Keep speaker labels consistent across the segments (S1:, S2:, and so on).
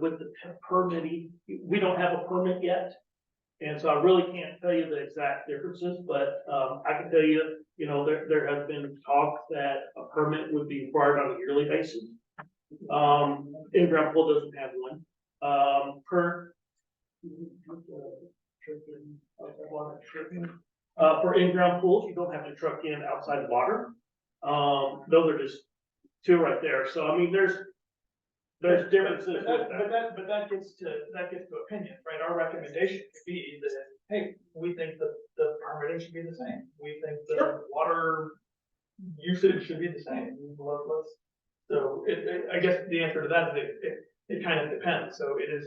S1: with the p- permitting, we don't have a permit yet. And so I really can't tell you the exact differences, but, um, I can tell you, you know, there, there has been talk that a permit would be required on a yearly basis. Um, and Grand Pool doesn't have one, um, per. Uh, for in-ground pools, you don't have to truck in outside water. Um, those are just two right there. So I mean, there's, there's differences with
S2: But that,
S1: that.
S2: but that, but that gets to, that gets to opinion, right? Our recommendation could be that, hey, we think that the permitting should be the same. We think the water usage should be the same. Let- let's- So it, it, I guess the answer to that is it, it, it kind of depends. So it is,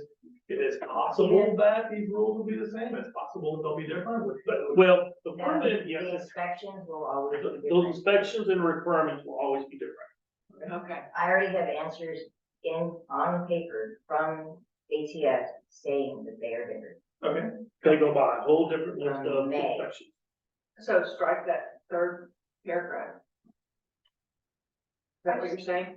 S2: it is possible that these rules will be the same. It's possible that they'll be different, but
S1: Well, the
S3: No, the
S1: permit,
S3: the
S1: yes,
S3: inspections will always
S1: the
S3: be
S1: the
S3: different.
S1: inspections and requirements will always be different.
S3: Okay. I already have answers in, on paper from ATF saying that they are different.
S2: Okay,
S1: They go by a whole different list of
S3: May.
S1: inspections.
S4: So strike that third paragraph. Is that what you're saying?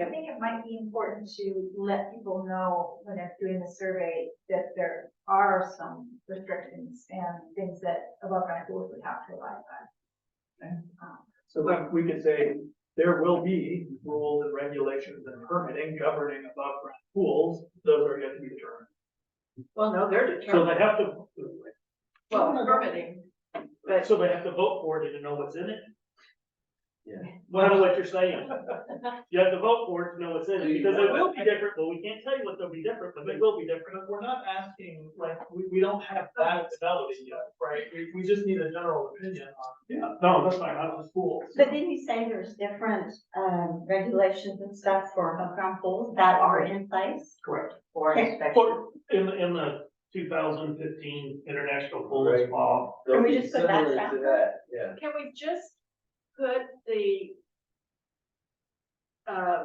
S5: I think it might be important to let people know when they're doing the survey that there are some restrictions and things that above ground pools would have to abide by. Um,
S2: so then we could say there will be rules and regulations and permitting governing above ground pools. Those are yet to be determined.
S4: Well, no, they're
S1: So
S4: determined,
S1: they have to,
S4: well, permitting, but
S1: so they have to vote for it to know what's in it? Well, I know what you're saying. You have to vote for it to know what's in it, because they will be different, but we can't tell you what they'll be different, but they will be different.
S2: But we're not asking, like, we, we don't have that fidelity yet, right? We, we just need a general opinion on. Yeah.
S1: No, that's fine, I was fooled.
S6: But didn't you say there's different, um, regulations and stuff for above ground pools that are in place?
S1: Correct.
S3: Or
S6: Okay.
S3: inspection.
S1: For, in, the- in the two thousand fifteen International Pools
S7: Right.
S1: Law,
S6: Can we just put that
S7: Similar
S6: back?
S7: to that, Yeah,
S4: can we just put the uh,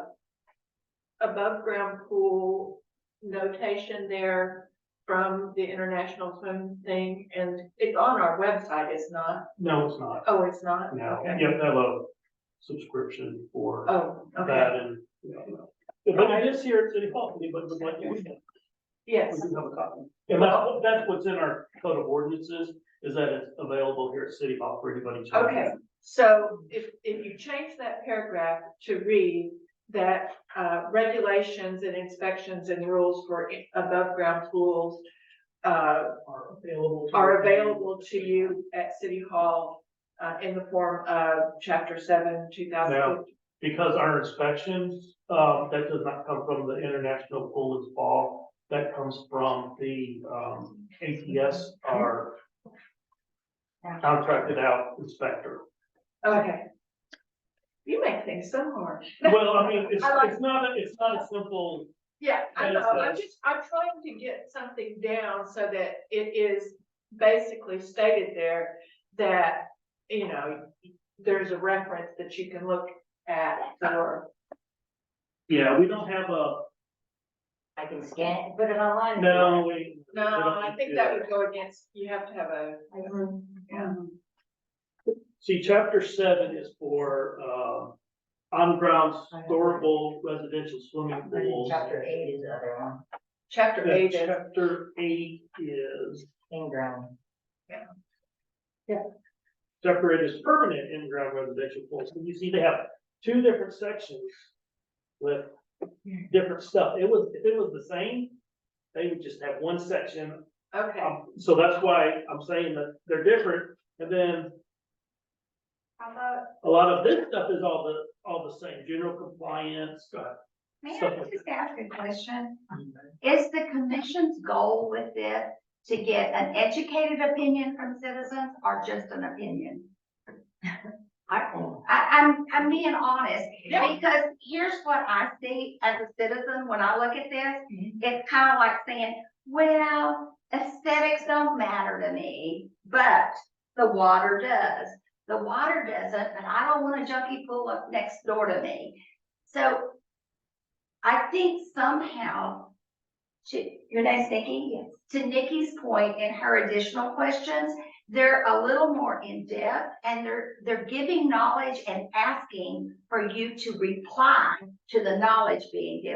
S4: above ground pool notation there from the international swim thing? And it's on our website, it's not,
S1: no, it's not,
S4: oh, it's not?
S1: no,
S4: Okay.
S1: you have to have a subscription for
S4: Oh, okay,
S1: that and. you know. But it is here at City Hall, but but like, we can,
S4: yes.
S1: we can have a copy. And that's, that's what's in our code of ordinances, is that it's available here at City Hall for anybody to.
S4: Okay, so if, if you change that paragraph to read that, uh, regulations and inspections and rules for i- above-ground pools, uh,
S2: Are available. to-
S4: are available to you at City Hall, uh, in the form of chapter seven, two thousand.
S1: Because our inspections, um, that does not come from the International Pool and Spa, that comes from the, um, ATS, our contracted out inspector.
S4: Okay. You make things so hard.
S1: Well, I mean, it's,
S4: I like-
S1: it's not, a- it's not a simple,
S4: Yeah, I
S1: That is
S4: know, I'm
S1: nice.
S4: just, I'm trying to get something down so that it is basically stated there that, you know, there's a reference that you can look at for,
S1: yeah, we don't have a,
S3: I can scan it and put it online. if you want.
S1: no, we. we
S4: no,
S1: don't
S4: I think
S1: do
S4: that would go against, you have to have a,
S1: See, chapter seven is for, um, on-ground storable residential swimming
S3: And then
S1: pools.
S3: Chapter eight is the other one,
S4: chapter
S1: Yeah,
S4: eight is,
S1: Chapter eight is,
S3: in ground.
S1: chapter eight is permanent in-ground residential pools, and you see they have two different sections with different stuff. It was, if it was the same, they would just have one section
S4: okay,
S1: Um, so that's why I'm saying that they're different, and then
S5: How about,
S1: a lot of this stuff is all the, all the same, general compliance, uh,
S8: May
S1: Stuff
S8: I
S1: like
S8: just ask a question? Is the commission's goal with this to get an educated opinion from citizens or just an opinion?
S3: I,
S8: I, I'm, I'm being honest,
S4: Yeah.
S8: because here's what I see as a citizen when I look at this. It's kind of like saying, well, aesthetics don't matter to me, but the water does. The water doesn't, and I don't want a junkie pool up next door to me. So I think somehow, to, your name's Nikki? Yes. To Nikki's point in her additional questions, they're a little more in-depth and they're, they're giving knowledge and asking for you to reply to the knowledge being given.